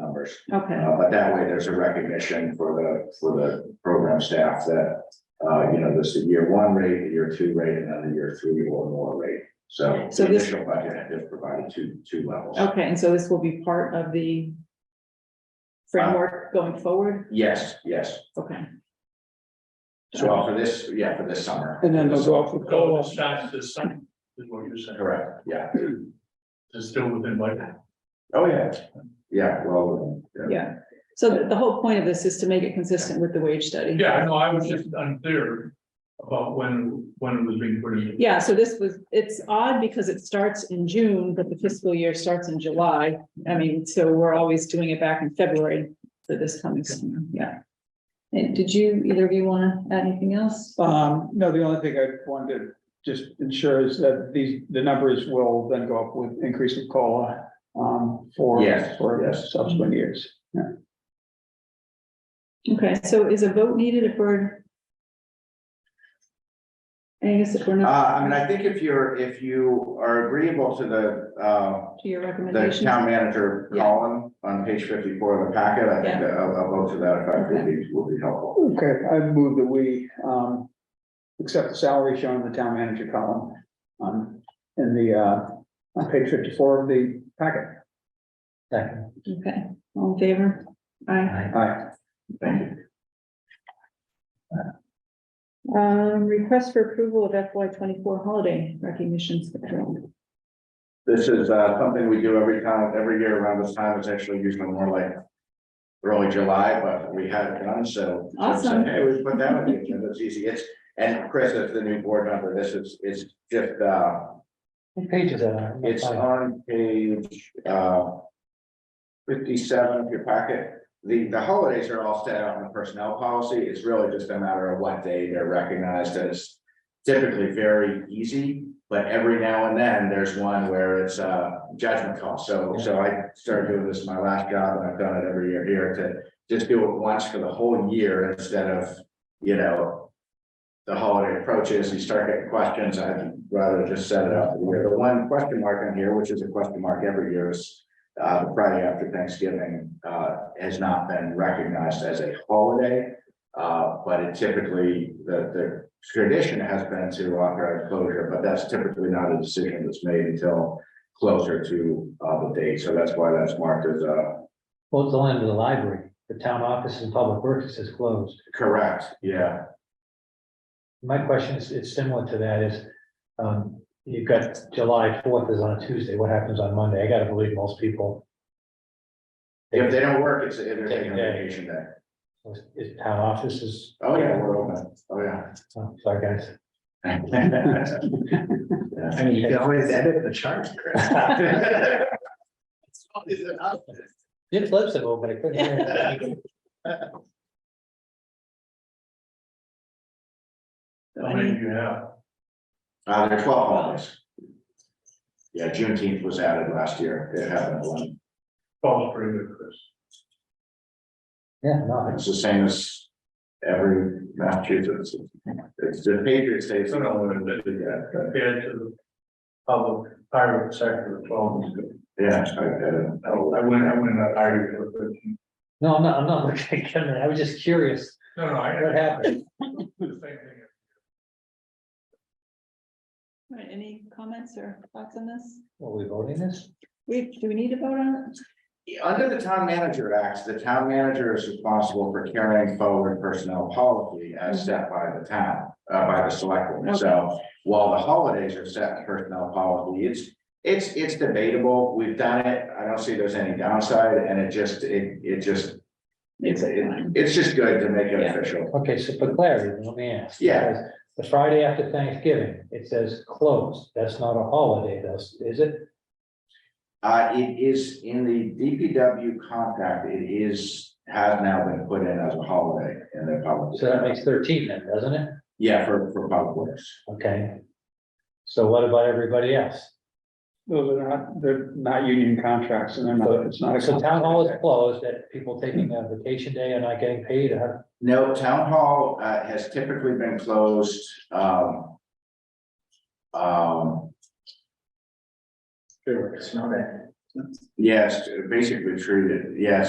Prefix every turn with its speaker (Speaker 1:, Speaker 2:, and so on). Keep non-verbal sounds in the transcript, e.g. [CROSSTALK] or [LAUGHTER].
Speaker 1: numbers.
Speaker 2: Okay,
Speaker 1: Uh, but that way there's a recognition for the, for the program staff that, uh, you know, this is year one rate, the year two rate, and then the year three or more rate. So.
Speaker 2: So this-
Speaker 1: Initial budget is provided two, two levels.
Speaker 2: okay, and so this will be part of the framework going forward?
Speaker 1: Yes, yes.
Speaker 2: Okay,
Speaker 1: So for this, yeah, for this summer.
Speaker 3: And then they'll go off with
Speaker 4: Go
Speaker 3: COLA.
Speaker 4: off shots this summer, is what you're saying.
Speaker 1: Correct, yeah.
Speaker 4: It's still within my.
Speaker 1: Oh, yeah. Yeah, well.
Speaker 2: yeah. So the, the whole point of this is to make it consistent with the wage study?
Speaker 4: Yeah, I know, I was just unclear about when, when it was being put in.
Speaker 2: Yeah, so this was, it's odd because it starts in June, but the fiscal year starts in July. I mean, so we're always doing it back in February for this coming summer, yeah. And did you, either of you want to add anything else?
Speaker 3: Um, no, the only thing I wanted to just ensure is that these, the numbers will then go up with increase of COLA. Um, for,
Speaker 1: Yes,
Speaker 3: for
Speaker 1: yes.
Speaker 3: subsequent years.
Speaker 2: Okay, so is a vote needed if we're? I guess if we're
Speaker 1: Uh,
Speaker 2: not
Speaker 1: I mean, I think if you're, if you are agreeable to the, uh,
Speaker 2: to your
Speaker 1: the
Speaker 2: recommendation,
Speaker 1: town manager
Speaker 2: Yeah.
Speaker 1: column on page fifty-four of the packet, I think a, a vote to that effect would be, would be helpful.
Speaker 3: Okay, I move that we, um, accept the salary shown in the town manager column. On, in the, uh, on page fifty-four of the packet.
Speaker 2: okay, all in favor? Aye.
Speaker 3: Aye.
Speaker 2: Um, request for approval of FY twenty-four holiday recognitions.
Speaker 1: This is uh something we do every time, every year around this time, it's actually usually more like. Early July, but we had it done, so. so I said,
Speaker 2: Awesome.
Speaker 1: Hey, we put that on the agenda, it's easy, it's, and Chris, as the new board member, this is, it's just uh,
Speaker 5: Pages are.
Speaker 1: it's on page uh. Fifty-seven of your packet, the the holidays are all set out in the personnel policy, it's really just a matter of what day they're recognized as. Typically very easy, but every now and then there's one where it's a judgment call, so, so I started doing this my last job, and I've done it every year here to. Just do it once for the whole year instead of, you know. The holiday approaches, you start getting questions, I'd rather just set it up for the year, the one question mark on here, which is a question mark every year is. Uh, the Friday after Thanksgiving, uh, has not been recognized as a holiday. Uh, but it typically, the, the tradition has been to authorize closure, but that's typically not a decision that's made until closer to, uh, the date, so that's why that's marked as, uh,
Speaker 5: Well, it's the line of the library, the town office and public works is closed.
Speaker 1: correct, yeah.
Speaker 5: My question is, it's similar to that is, um, you've got July fourth is on a Tuesday, what happens on Monday? I gotta believe most people.
Speaker 1: If they don't work, it's, they're taking a vacation day.
Speaker 5: Is town office is,
Speaker 1: Oh, yeah, we're open, oh, yeah.
Speaker 5: oh, sorry, guys.
Speaker 1: Yeah.
Speaker 5: mean, you can
Speaker 6: always edit the chart,
Speaker 5: [LAUGHS] Jim's lips have opened, I couldn't hear it.
Speaker 4: How many do you have?
Speaker 1: Uh, there are twelve holidays. Yeah, Juneteenth was added last year. It happened one.
Speaker 4: Paul's pretty good, Chris.
Speaker 5: Yeah, no,
Speaker 1: It's the same as every Massachusetts. It's the Patriots Day. so no one would do that,
Speaker 4: Compared to the public private sector, twelve is good.
Speaker 1: but Yeah, I get it.
Speaker 4: I I wouldn't, I wouldn't have hired you for thirteen.
Speaker 5: no, I'm not, I'm not looking at Kevin, I was just curious
Speaker 4: No, no, I.
Speaker 5: what happened.
Speaker 4: [LAUGHS] The same thing.
Speaker 2: Any comments or thoughts on this?
Speaker 5: Were we voting this?
Speaker 2: We, do we need to vote on it?
Speaker 1: Under the Town Manager Act, the town manager is responsible for carrying forward personnel policy as set by the town, uh, by the select board. So while the holidays are set in personnel policy, it's, it's, it's debatable. We've done it. I don't see there's any downside and it just, it, it just, it's, it- it's just good to make it
Speaker 2: Yeah.
Speaker 1: official.
Speaker 5: Okay, so for clarity, let me ask.
Speaker 1: Yeah.
Speaker 5: Because The Friday after Thanksgiving, it says closed. That's not a holiday, that's, is it?
Speaker 1: Uh, it is in the DPW contract, it is, has now been put in as a holiday in the public.
Speaker 5: So that makes thirteen then, doesn't it?
Speaker 1: Yeah, for, for public works.
Speaker 5: Okay. So what about everybody else?
Speaker 3: Those are not, they're not union contracts and they're not, it's not. a
Speaker 5: So
Speaker 3: contract.
Speaker 5: town hall is closed, that people taking a vacation day and not getting paid, or
Speaker 1: No, town hall uh has typically been closed, um. Um,
Speaker 6: It's not a.
Speaker 1: yes, basically treated, yes,